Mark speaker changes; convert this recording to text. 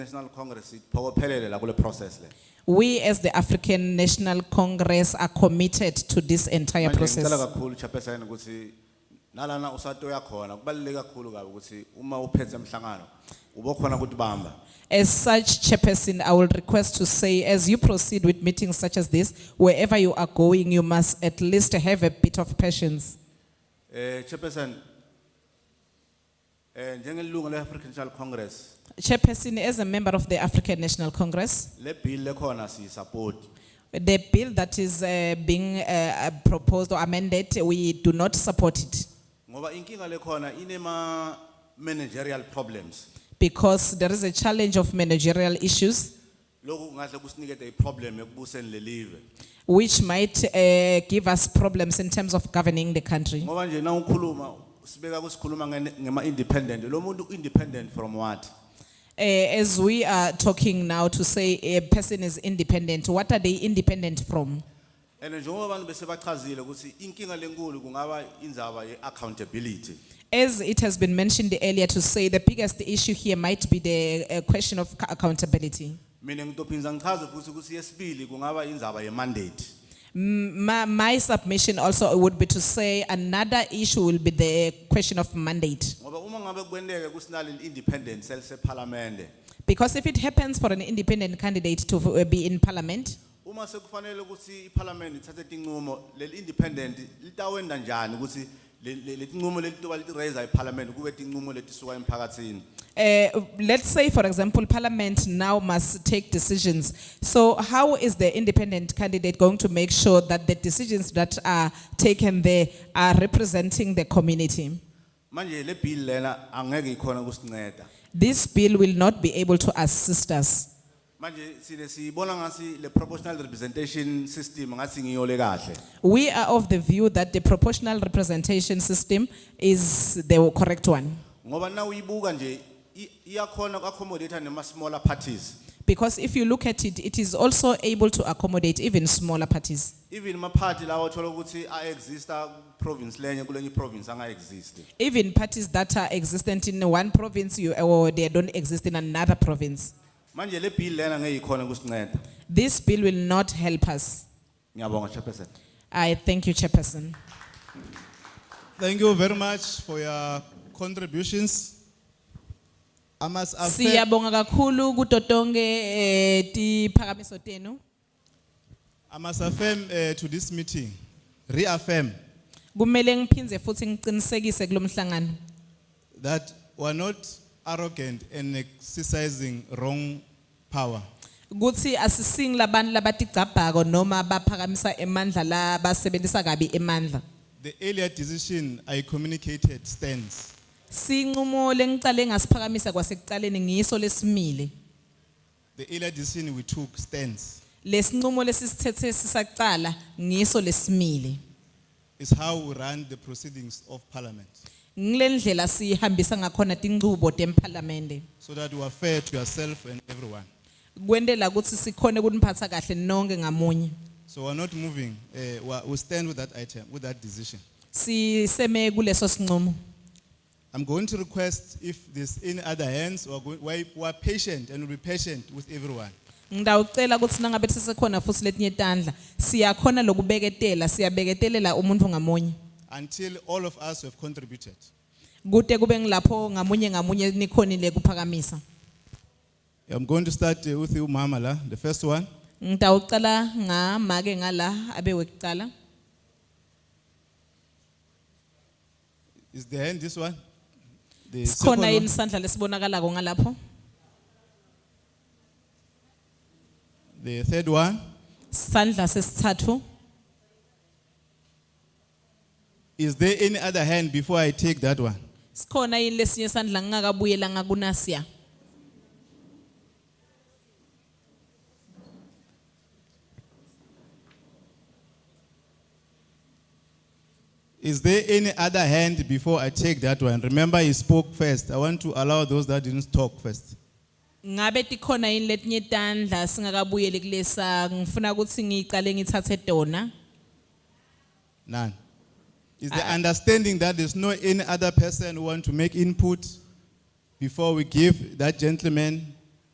Speaker 1: National Congress iphokophelele la kule process le.
Speaker 2: We as the African National Congress are committed to this entire
Speaker 1: Manje ngicela
Speaker 2: Eh, process.
Speaker 1: kakhulu chairperson ukuthi nalana usatoya khona kubaluleke kakhulu kabi ukuthi uma uphethe umhlangano ube khona ukuthi bamba.
Speaker 2: As such, Chairperson, I will request to say, as you proceed with meetings such as this, wherever you are going, you must at least have a bit of patience.
Speaker 1: Eh chairperson eh njengelungu le African National Congress
Speaker 2: Chairperson, as a member of the African National Congress,
Speaker 1: le bill lekhona si support.
Speaker 2: the bill that is uh, being uh, uh, proposed or amended, we do not support it
Speaker 1: Ngoba inkinga lekhona inema managerial problems.
Speaker 2: because there is a challenge of managerial issues
Speaker 1: Lokhu kungahle kusinikeze iproblem ekubuseni le live.
Speaker 2: which might uh, give us problems in terms of governing the country.
Speaker 1: Ngoba nje na ukhuluma sibeka kusikhuluma ngene- ngema independent. Lo muntu independent from what?
Speaker 2: Uh, as we are talking now to say a person is independent, what are they independent from?
Speaker 1: And njengoba abantu besebachazile ukuthi inkinga lenkulu kungaba indzaba ye accountability.
Speaker 2: As it has been mentioned earlier to say, the biggest issue here might be the uh, question of ca- accountability.
Speaker 1: Mina ngitophinza ngichaze futhi ukuthi yesibili kungaba indzaba ye mandate.
Speaker 2: M- My, my submission also would be to say another issue will be the question of mandate.
Speaker 1: Ngoba uma ngabe kwendeke kusinale independence else parliament.
Speaker 2: Because if it happens for an independent candidate to uh, be in parliament,
Speaker 1: Uma sekufanele ukuthi iparliament ithathe tinqumo le independent litawenda njani ukuthi le le- le tinqumo lelitoba litiraise iparliament kube tinqumo letisuka emphakatsini.
Speaker 2: Uh, let's say, for example, Parliament now must take decisions. So, how is the independent candidate going to make sure that the decisions that are taken there are representing the community?
Speaker 1: Manje le bill lena angeke ikhona kusinceda.
Speaker 2: This bill will not be able to assist us.
Speaker 1: Manje sine sibona ngasi le proportional representation system ngasi ngiyo le kahle.
Speaker 2: We are of the view that the proportional representation system is the correct one.
Speaker 1: Ngoba na uyibuka nje i- iyakhona uku-accommodate nema smaller parties.
Speaker 2: Because if you look at it, it is also able to accommodate even smaller parties.
Speaker 1: Even ma party lawo thola ukuthi a exista province lenye kulenye province anga exist.
Speaker 2: Even parties that are existent in one province you, or they don't exist in another province.
Speaker 1: Manje le bill lena ngeke ikhona kusinceda.
Speaker 2: This bill will not help us.
Speaker 1: Ngiyabonga chairperson.
Speaker 2: I thank you, Chairperson.
Speaker 3: Thank you very much for your contributions. I must affirm,
Speaker 2: Siyabonga kakhulu kuto tonke eh tiphakamiso tenu.
Speaker 3: I must affirm eh, to this meeting, reaffirm
Speaker 2: Kumele ngiphindze futhi ngiqinisekise kulomhlangano
Speaker 3: that we are not arrogant and exercising wrong power.
Speaker 2: kuthi asising labantu labatigcabhako noma baphakamisa emandla la basebenzisa kabi emandla.
Speaker 3: The earlier decision I communicated stands.
Speaker 2: Sinqumo lengicale ngasiphakamisa kwasekucaleni ngiso lesimile.
Speaker 3: The earlier decision we took stands.
Speaker 2: Lesinqumo lesisithethe sisaqala ngiso lesimile.
Speaker 3: It's how we run the proceedings of parliament
Speaker 2: Ngilendlela sihambisa ngakhona tinchubo temparlamente.
Speaker 3: so that you are fair to yourself and everyone.
Speaker 2: kwendela ukuthi sikhone ukuniphatha kahle nonke ngamunye
Speaker 3: So we're not moving, eh, we are- we stand with that item, with that decision.
Speaker 2: siseme kuleso sinqumo
Speaker 3: I'm going to request if there's any other hands, we're, going, we're, we're patient and we'll be patient with everyone.
Speaker 2: ngidawucela ukuthi nangabe sisekhona futhi letinye tandla siyakhona lokubeketela siyabeketelela umuntu ngamunye
Speaker 3: Until all of us have contributed.
Speaker 2: kude kube ngilapho ngamunye ngamunye nikhonile kuphakamisa
Speaker 3: I'm going to start eh, with you, Mama, la, the first one.
Speaker 2: ngidawucela ngamake ngala abewe kucala
Speaker 3: Is the hand this one? The
Speaker 2: sikhona
Speaker 3: second
Speaker 2: yini
Speaker 3: one.
Speaker 2: sandla lesibonakalako ngalapho
Speaker 3: The third one.
Speaker 2: sandla sesithathu
Speaker 3: Is there any other hand before I take that one?
Speaker 2: sikhona yini lesinye sandla ngingakabuyela ngakunasiya
Speaker 3: Is there any other hand before I take that one? Remember, he spoke first. I want to allow those that didn't talk first.
Speaker 2: Ngabe tikhona yini letinye tandla singakabuyeli kulesa ngifuna ukuthi ngiqale ngithathe dona
Speaker 3: None. Is the understanding that there's no any other person who want to make input before we give that gentleman